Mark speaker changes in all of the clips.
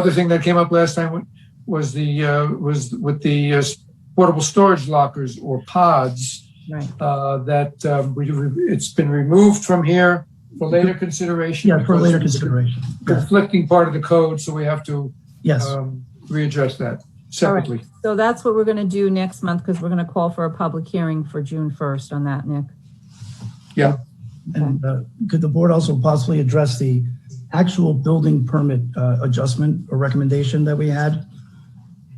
Speaker 1: Other thing that came up last time was the, uh, was with the uh, portable storage lockers or pods.
Speaker 2: Right.
Speaker 1: Uh, that, um, we, it's been removed from here for later consideration.
Speaker 2: Yeah, for
Speaker 1: because
Speaker 2: later
Speaker 1: it's a
Speaker 2: consideration. Yeah.
Speaker 1: Conflicting part of the code, so we have to,
Speaker 2: Yes,
Speaker 1: um, readdress that separately.
Speaker 3: So that's what we're going to do next month because we're going to call for a public hearing for June 1st on that, Nick.
Speaker 2: and uh, could the board also possibly address the actual building permit uh, adjustment or recommendation that we had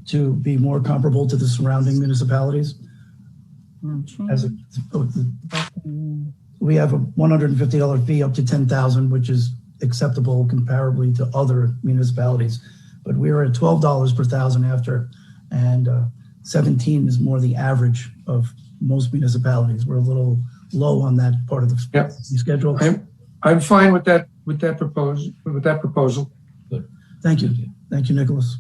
Speaker 2: to be more comparable to the surrounding municipalities?
Speaker 3: No change.
Speaker 2: As oh, a- we have a $150 fee up to 10,000, which is acceptable comparably to other municipalities. But we are at $12 per thousand after, and uh, 17 is more the average of most municipalities. We're a little low on that part of the
Speaker 1: Yep.
Speaker 2: fee schedule.
Speaker 1: I'm, I'm fine with that, with that propose, with that proposal.
Speaker 2: Thank you. Thank you, Nicholas.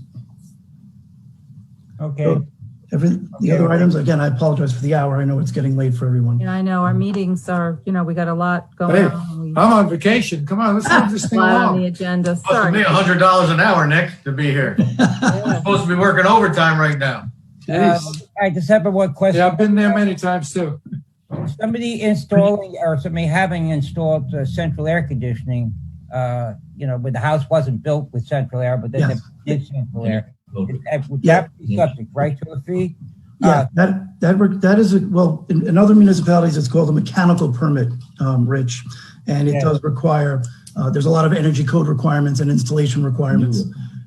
Speaker 4: Okay,
Speaker 2: Oh, Every, the
Speaker 4: Okay.
Speaker 2: other items, again, I apologize for the hour. I know it's getting late for everyone.
Speaker 3: And I know our meetings are, you know, we got a lot
Speaker 1: Hey,
Speaker 3: going on. We-
Speaker 1: I'm on vacation. Come on, let's move this
Speaker 3: A
Speaker 1: thing
Speaker 3: lot on
Speaker 1: along.
Speaker 3: the agenda.
Speaker 5: Supposed to be
Speaker 3: Sorry.
Speaker 5: a hundred dollars an hour, Nick, to be here. Supposed to be working overtime right now.
Speaker 4: uh,
Speaker 1: Jeez.
Speaker 4: all right, the separate one
Speaker 1: Yeah,
Speaker 4: question.
Speaker 1: I've been there many times too.
Speaker 4: Somebody installing or somebody having installed uh, central air conditioning, uh, you know, but the house wasn't built with central air, but then they
Speaker 2: Yes.
Speaker 4: did central air. Is that- Would
Speaker 2: Yeah.
Speaker 4: that be subject, right, to a fee? Uh,
Speaker 2: Yeah, that, that, work- that is, a- well, in, in other municipalities, it's called a mechanical permit, um, Rich. And it
Speaker 4: Yeah.
Speaker 2: does require, uh, there's a lot of energy code requirements and installation requirements.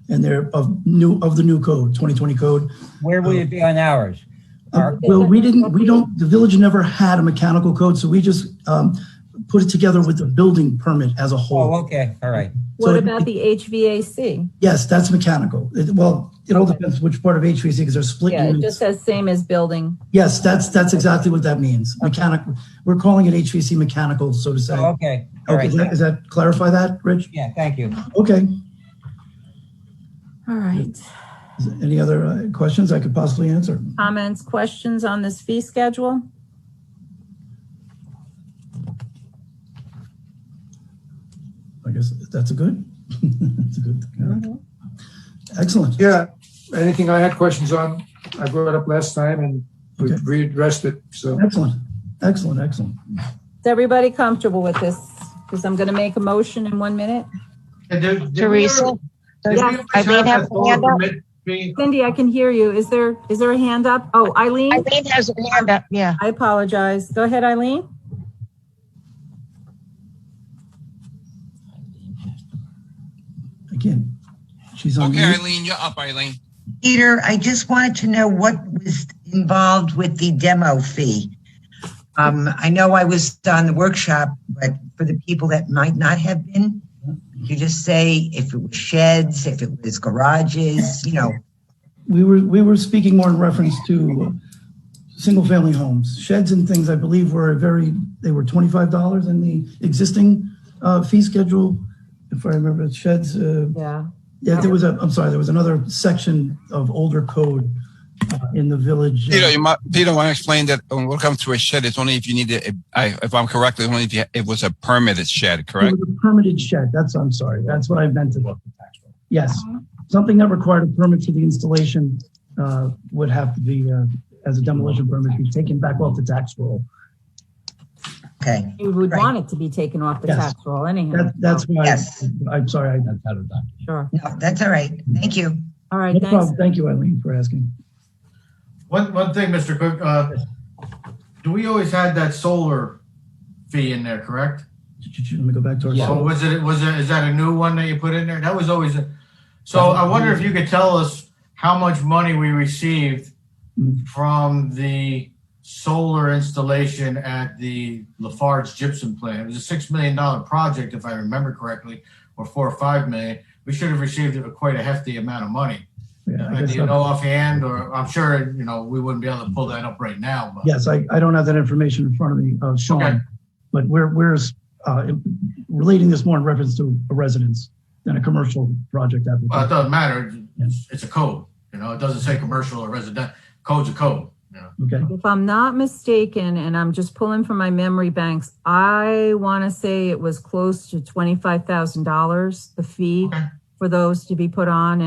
Speaker 2: And they're of new, of the new code, 2020 code.
Speaker 4: Where would it be on ours?
Speaker 2: Uh,
Speaker 4: Our-
Speaker 2: Well, we didn't, we don't, the village never had a mechanical code, so we just, um, put it together with the building permit as a whole.
Speaker 4: Oh, okay, all right.
Speaker 3: What
Speaker 2: so-
Speaker 3: about the HVAC?
Speaker 2: Yes, that's mechanical. It- Well, it all depends which part of HVAC, because they're split
Speaker 3: Yeah, it just
Speaker 2: units.
Speaker 3: says same as building.
Speaker 2: Yes, that's, that's exactly what that means. Mechanical, we're calling it HVAC mechanical, so to say.
Speaker 4: Oh, Okay,
Speaker 2: Okay,
Speaker 4: all right.
Speaker 2: does that- does that clarify that, Rich?
Speaker 4: Yeah, thank you.
Speaker 2: Okay.
Speaker 3: All right.
Speaker 2: Is there Any other uh, questions I could possibly answer?
Speaker 3: Comments, questions on this fee schedule?
Speaker 2: I guess that's a good, that's a good. thing. All right.
Speaker 4: Mm-hmm.
Speaker 2: Excellent.
Speaker 1: Yeah, anything I had questions on, I brought it up last time and we
Speaker 2: Okay.
Speaker 1: readdressed it, so.
Speaker 2: Excellent. Excellent, excellent.
Speaker 3: Is everybody comfortable with this? Because I'm going to make a motion in one minute.
Speaker 5: And did- did we
Speaker 6: Teresa,
Speaker 5: ever- did we
Speaker 6: does
Speaker 5: ever have that
Speaker 6: Eileen have her hand
Speaker 5: solar
Speaker 6: up?
Speaker 5: permit fee?
Speaker 3: Cindy, I can hear you. Is there, is there a hand up? Oh, Eileen,
Speaker 6: Eileen has her hand up, yeah.
Speaker 3: I apologize. Go ahead, Eileen.
Speaker 2: Again, she's on
Speaker 7: Okay,
Speaker 2: mute.
Speaker 7: Eileen, you're up, Eileen.
Speaker 6: Peter, I just wanted to know what was involved with the demo fee. Um, I know I was on the workshop, but for the people that might not have been, you just say if it was sheds, if it was garages, you know,
Speaker 2: We were, we were speaking more in reference to uh, single-family homes. Sheds and things, I believe, were a very, they were $25 in the existing uh, fee schedule. If I remember, sheds, uh,
Speaker 3: Yeah.
Speaker 2: Yeah, there was a, I'm sorry, there was another section of older code uh, in the village. uh,
Speaker 7: Peter, you might, Peter, want to explain that um, when it comes to a shed, it's only if you need it, I, if I'm correct, it's only if you, it was a permitted shed,
Speaker 2: It
Speaker 7: correct?
Speaker 2: was a permitted shed, that's, I'm sorry, that's what I meant to. Yes, something that required a permit for the installation uh, would have to be, uh, as a demolition permit, be taken back off the tax roll.
Speaker 6: okay,
Speaker 3: You would
Speaker 6: Right.
Speaker 3: want it to be taken off the
Speaker 2: Yes.
Speaker 3: tax roll anyhow.
Speaker 2: That, that's why,
Speaker 6: Yes.
Speaker 2: I- I'm sorry, I-
Speaker 3: Sure.
Speaker 6: no, that's all right. Thank you.
Speaker 3: All right,
Speaker 2: no
Speaker 3: thanks.
Speaker 2: problem, thank you, Eileen, for asking.
Speaker 5: One, one thing, Mr. Cook, uh, do we always had that solar fee in there, correct?
Speaker 2: Let me go back to
Speaker 5: So
Speaker 2: our,
Speaker 5: Oh, was it, was it, is that a new one that you put in there? That was always a, so I wonder if you could tell us how much money we received
Speaker 2: Mm.
Speaker 5: from the solar installation at the Lafarge gypsum plant. It was a six million dollar project, if I remember correctly, or four or five million. We should have received quite a hefty amount of money.
Speaker 2: yeah, I
Speaker 5: Do
Speaker 2: guess not.
Speaker 5: you know offhand, or I'm sure, you know, we wouldn't be able to pull that up right now, but.
Speaker 2: Yes, I, I don't have that information in front of me, uh,
Speaker 5: Okay.
Speaker 2: Sean, but we're, we're uh, relating this more in reference to a residence than a commercial project
Speaker 5: Well, it
Speaker 2: application.
Speaker 5: doesn't matter. It's, it's a code, you know, it doesn't say commercial or resident, code's a code, you know.
Speaker 2: Okay,
Speaker 3: If I'm not mistaken, and I'm just pulling from my memory banks, I want to say it was close to $25,000, the fee
Speaker 5: Okay.
Speaker 3: for those to be put on.